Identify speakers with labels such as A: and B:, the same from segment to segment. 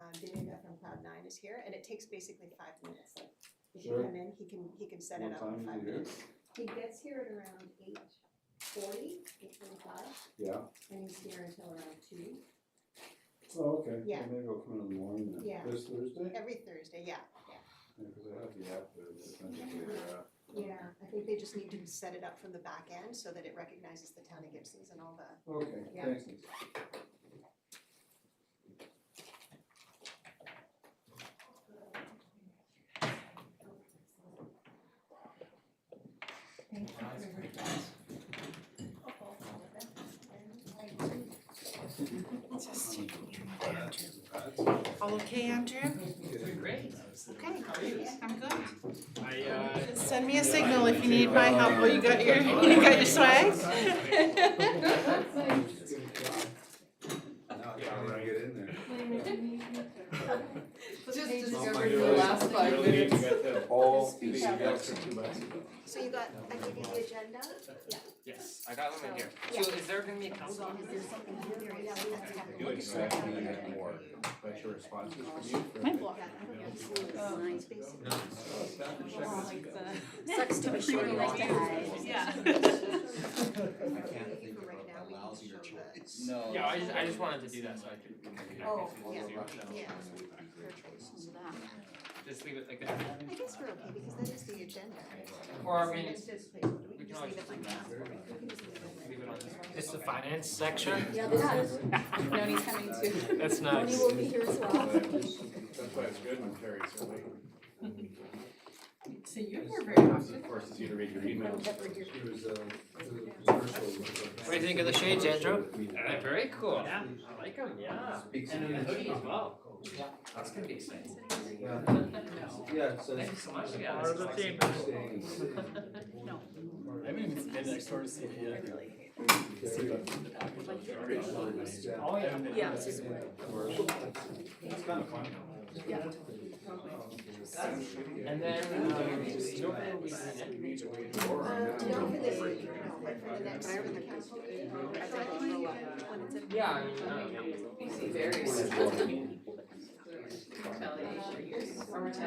A: um, is here and it takes basically five minutes. He can
B: Sure.
A: come in, he can, he can set it
B: What
A: up
B: time
A: in
B: is
A: five
B: it here?
A: minutes.
C: He gets here at around eight forty, eight forty-five,
B: Yeah,
C: and he's here until around two.
B: oh, okay,
A: Yeah.
B: well, maybe I'll come in in the morning then.
A: Yeah.
B: This Thursday?
A: Every Thursday, yeah,
B: Yeah, cause I have the app there, it's essentially, uh,
A: yeah, I think they just need to set it up from the back end so that it recognizes the town of Gibson's and all the
B: okay,
A: Yeah.
B: thanks.
D: All okay, Andrew?
E: Great.
D: Okay,
E: How are you?
D: I'm good.
E: I, uh.
D: Just send me a signal if you need my help. Oh, you got your, you got your swag?
B: Now, yeah, when I get in there.
C: Just
F: Oh
E: discovered in the last five minutes.
B: All
C: Just speak out.
A: So you got, I gave you the agenda?
E: Yes, I got them in here.
A: Yeah.
E: So is there gonna be a council on this?
A: something here right now, we have to have a
F: Do
A: look at your
F: exactly
A: calendar.
F: that more, but your responses from you.
D: My block.
A: Yeah, I don't know, it's
D: Oh.
A: it's basically-
D: Sucks to be
A: short
F: like that.
A: I can't think of
F: a lousier choice.
G: No.
E: Yeah, I just, I just wanted to do that so I could.
A: Oh,
E: I
A: yeah.
E: could do it.
A: Yeah.
E: Just leave it like
A: I
E: that.
A: guess we're okay, because that is the agenda.
E: Or I mean,
A: It's just- we can
E: we can
A: just
E: always
A: leave it
E: just
A: like
E: leave
A: that.
E: that.
A: We can just leave it.
E: Leave it on this.
G: It's the finance section.
C: Yeah, that's, Noni's coming too.
G: That's
C: Noni
G: nice.
C: will be here as well.
F: That's why it's good when Terry's away.
D: So you're here
F: It forces you to read your emails.
B: She was, uh, the commercial.
G: What do you think of the shades, Andrew?
E: Uh, very cool. Yeah, I like them, yeah. And then the hoodie as well.
G: Yeah.
E: That's gonna be exciting.
B: Yeah, yeah, so.
E: Thank you so much, yeah.
G: Part of the team.
D: No.
G: I mean, it's been next door to see
E: Oh, yeah.
D: Yeah, it's just-
B: It's kind of fun.
D: Yeah.
E: And then, um, you know, when we in it,
A: Uh, Not for this week, no, but for the next, for the council meeting.
E: yeah, I mean, uh, maybe-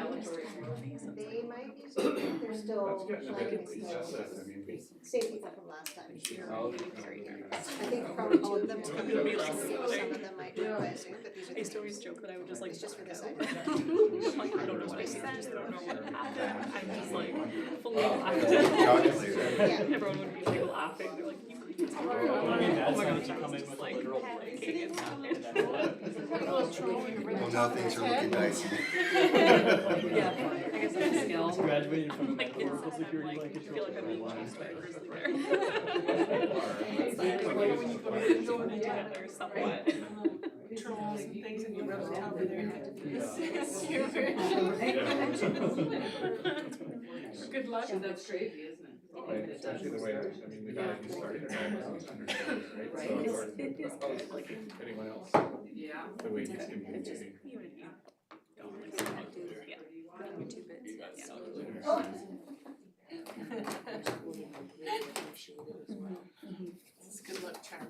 A: They might be, still- they're still
F: That's good, no, we
A: like,
F: can recess it, I mean, we-
A: safety stuff from last time.
F: Oh,
A: I
F: okay.
A: think probably all of them
F: Yeah.
A: coming,
F: It'll be
A: some
F: like
A: of
D: something.
A: them might do by Zoom, but these are the
D: I used to
A: names.
D: always joke that I would just like.
A: It's just for this
D: duck out.
A: item.
D: I'm like, I don't know what I said, I don't know what happened. I'm just like fully laughing.
E: Oh
D: Everyone would be like laughing, they're like, you could just. Oh my gosh, I was just like.
F: Well, now things are looking dicey.
D: Yeah, I guess that's a skill.
G: Graduated
D: I'm like, it's, I'm like, I feel like I'm being chased by a grizzly bear. It's like, you know, when you go to the zone together somewhat. Trolls and things and you rub it out over there. It's- it's your version. Good luck.
H: That's crazy, isn't it?
F: Well, and Especially the way, that- I mean, the guy who started it all was understanding, right? So
D: Right.
F: it's hard
D: It is
F: to-
D: good, like-
F: if anyone else,
H: Yeah.
F: the way he's communicating.
D: You and you. Don't like that, dude. Yeah. Your two bits, yeah. It's good luck charm.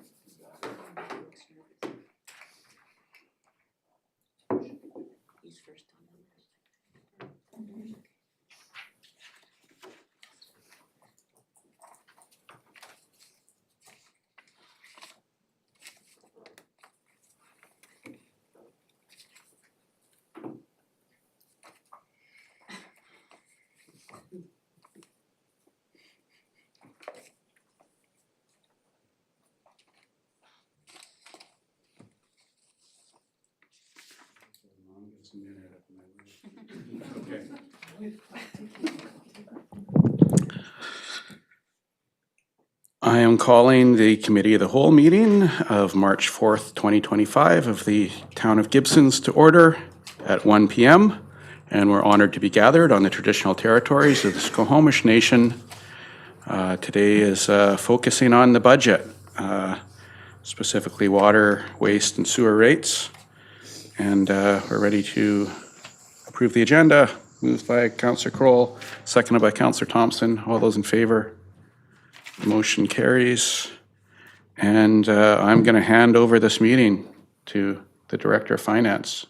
D: He's first on the list.
B: Mom gets some internet up in my room.
F: Okay.
I: I am calling the Committee of the Whole meeting of March 4th, 2025 of the Town of Gibson's to order at 1 PM. And we're honored to be gathered on the traditional territories of the Skokomish Nation. Uh, Today is uh, focusing on the budget, uh, specifically water, waste, and sewer rates. And uh, we're ready to approve the agenda. Moved by Counselor Kroll, seconded by Counselor Thompson. All those in favor? Motion carries. And uh, I'm going to hand over this meeting to the Director of Finance.